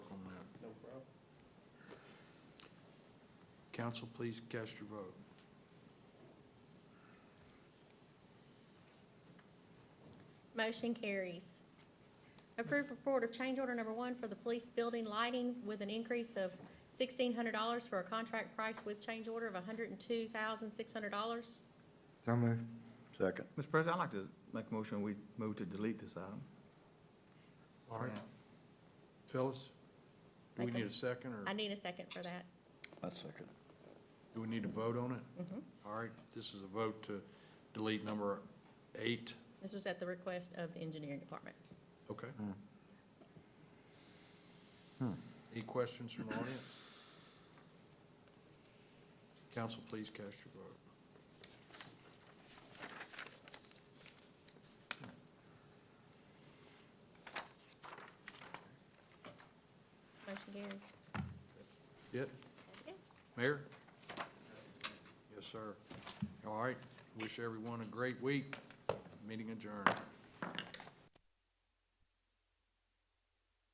Council, please cast your vote. Motion carries. Approve report of change order number one for the police building lighting with an increase of sixteen hundred dollars for a contract price with change order of hundred and two thousand, six hundred dollars. So moved. Second. Mr. President, I'd like to make a motion, we move to delete this item. All right, Phyllis, do we Make a- need a second, I or need a second for that. I second. do we need to vote on it? Mm-hmm. All right, this is a vote to delete number eight, This was at the request of the engineering department. okay? Hmm. Any questions from the audience? Council, please cast your vote. Motion carries. It? Mayor? Yes, sir. All right, wish everyone a great week. Meeting adjourned.